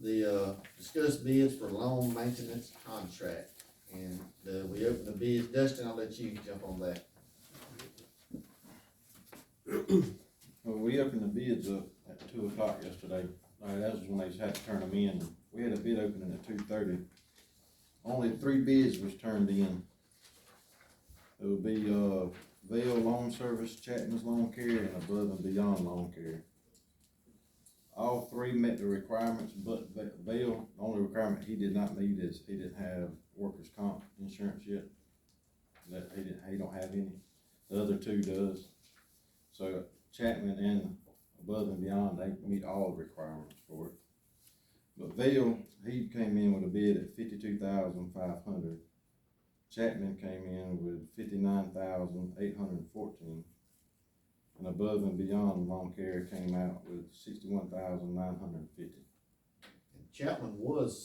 the, uh, discuss bids for loan maintenance contract. And, uh, we opened the bids, Dustin, I'll let you jump on that. Well, we opened the bids up at two o'clock yesterday, Uh, that was when they had to turn them in, we had a bid opening at two thirty. Only three bids was turned in. It would be, uh, Vail Lawn Service, Chapman's Lawn Care, and Above and Beyond Lawn Care. All three met the requirements, but Va- Vail, the only requirement he did not meet is he didn't have workers' comp insurance yet. That, he didn't, he don't have any, the other two does. So Chapman and above and beyond, they meet all the requirements for it. But Vail, he came in with a bid at fifty-two thousand five hundred. Chapman came in with fifty-nine thousand eight hundred and fourteen. And above and beyond lawn care came out with sixty-one thousand nine hundred and fifty. And Chapman was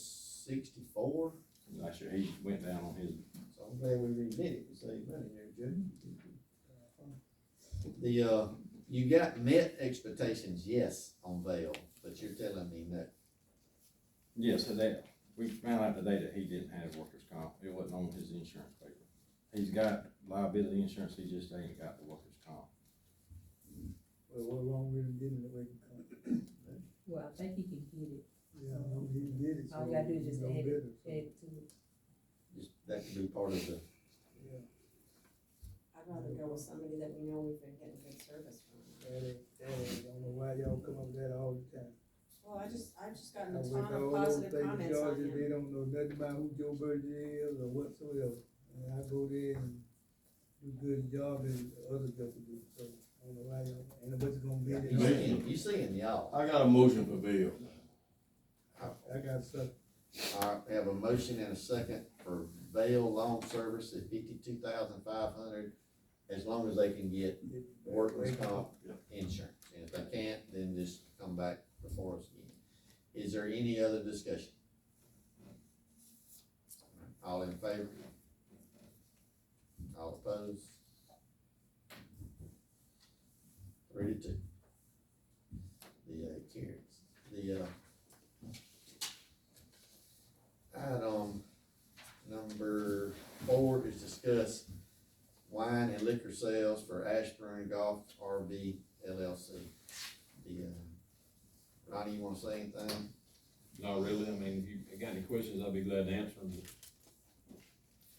sixty-four, Last year, he went down on his, so I'm glad we redid it, we saved money there, Judge. The, uh, you got met expectations, yes, on Vail, but you're telling me that yes, so that, we found out today that he didn't have workers' comp, it wasn't on his insurance paper. He's got liability insurance, he just ain't got the workers' comp. Well, what wrong with him getting it, we can come, Well, I think he can get it, yeah, I know he did it, so. All you gotta do is we just know add it. better, so, add to it. just, that could be part of the, Yeah, I'd rather go with somebody that we know we've been getting good service from. add it, add it, don't know why y'all come up with that all the time. Well, I just, I've just gotten Now, a with ton all of those positive things comments y'all on just- him. They don't know nothing about who Joe Burgess is or whatsoever, and I go there and do good job and other stuff to do, so, I don't know why y'all, and what's gonna be. you seeing, you seeing y'all. I got a motion for Bill. I got stuff, Alright, we have a motion and a second for bail loan service at fifty-two thousand five hundred, as long as they can get it- workers' comp Yeah. insurance. And if they can't, then just come back before us again. Is there any other discussion? All in favor? All opposed? Three to two. The, uh, carries, the, uh, item number four is discuss wine and liquor sales for Ashburn Golf RV LLC. The, uh, Ronnie, you wanna say anything? Not really, I mean, if you got any questions, I'll be glad to answer them.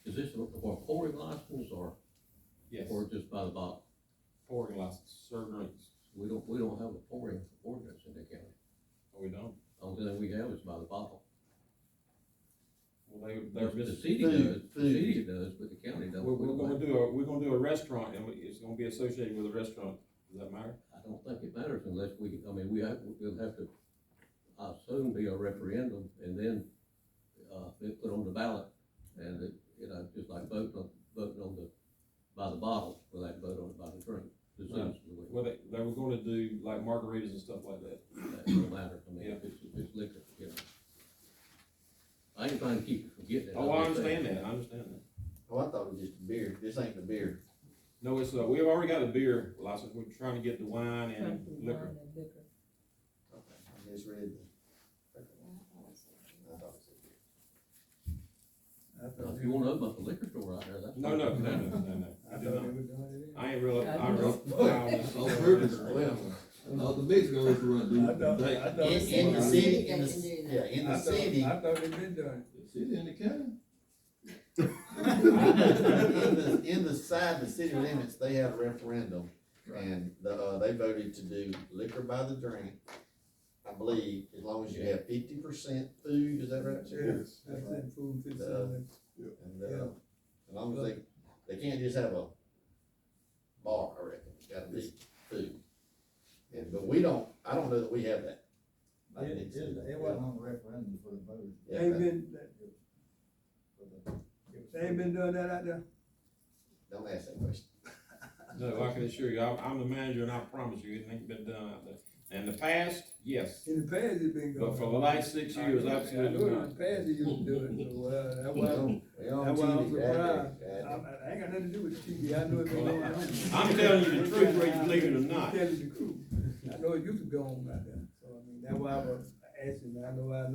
Is this a- for a pouring license or, Yes, or just by the bottle? pouring license, serve drinks, We don't, we don't have a pouring ordinance in the county. or Oh, we don't, Only thing we have is by the bottle. well, they, they're The just. city Food, does, the food. city does, but the county We're, doesn't. We we're don't gonna have- do a, we're gonna do a restaurant, and we- it's gonna be associated with a restaurant, does that matter? I don't think it matters unless we, I mean, we have, we'll have to, I assume be a referendum and then, uh, be put on the ballot. And it, you know, just like voting on, voting on the, by the bottle, we'll have to vote on it by the drink. The Right. citizens will. Well, they, they were gonna do like margaritas and stuff like that. That don't matter, I mean, Yeah. if it's, if it's liquor, you know. I ain't trying to keep you from getting it. Oh, I I'm just saying. understand that, I understand that. Oh, I thought it was just beer, this ain't the beer. No, it's, uh, we've already got the beer license, we're trying to get the wine and Something liquor. wine and liquor. Okay, I misread the, I thought it was a beer. I Now, thought. If you wanna open up a liquor store out there, that's. No, no, no, no, no, no, they- I I do thought not, they were doing it. I ain't really, I I really. Well, No, the big girls in. I know, I know. In, in the I- city, in They can the, do that. yeah, in I the thought- city, I thought they been doing City in the county? in the, in the side, the city limits, they had a referendum. And the, uh, they voted to do liquor by the drink, I believe, as long as you have fifty percent food, is that right, it. Sheriff? Yes. That's in food, fifteen minutes. And, Yeah. uh, as long as they, they can't just have a bar, I reckon, it's gotta be food. And, but we don't, I don't know that we have that. It, it, it wasn't on the referendum for the voters. Yeah, They ain't been, for the- they ain't been doing that out there? Don't ask that question. No, I can assure you, I'm, I'm the manager and I promise you, it ain't been done out there. In the past, yes, In the past, it been going. but for the last six years, absolutely I know not. In the past, they used to do it, so, uh, that's We why, don't- we don't that's why I'm TV, that- surprised. that- I, I ain't got nothing to do with the TV, I know it been going on. I'm telling you the truth, whether you believe it or not. Telling the truth, I know it used to go on out there, so, I mean, that's why I was asking, I know I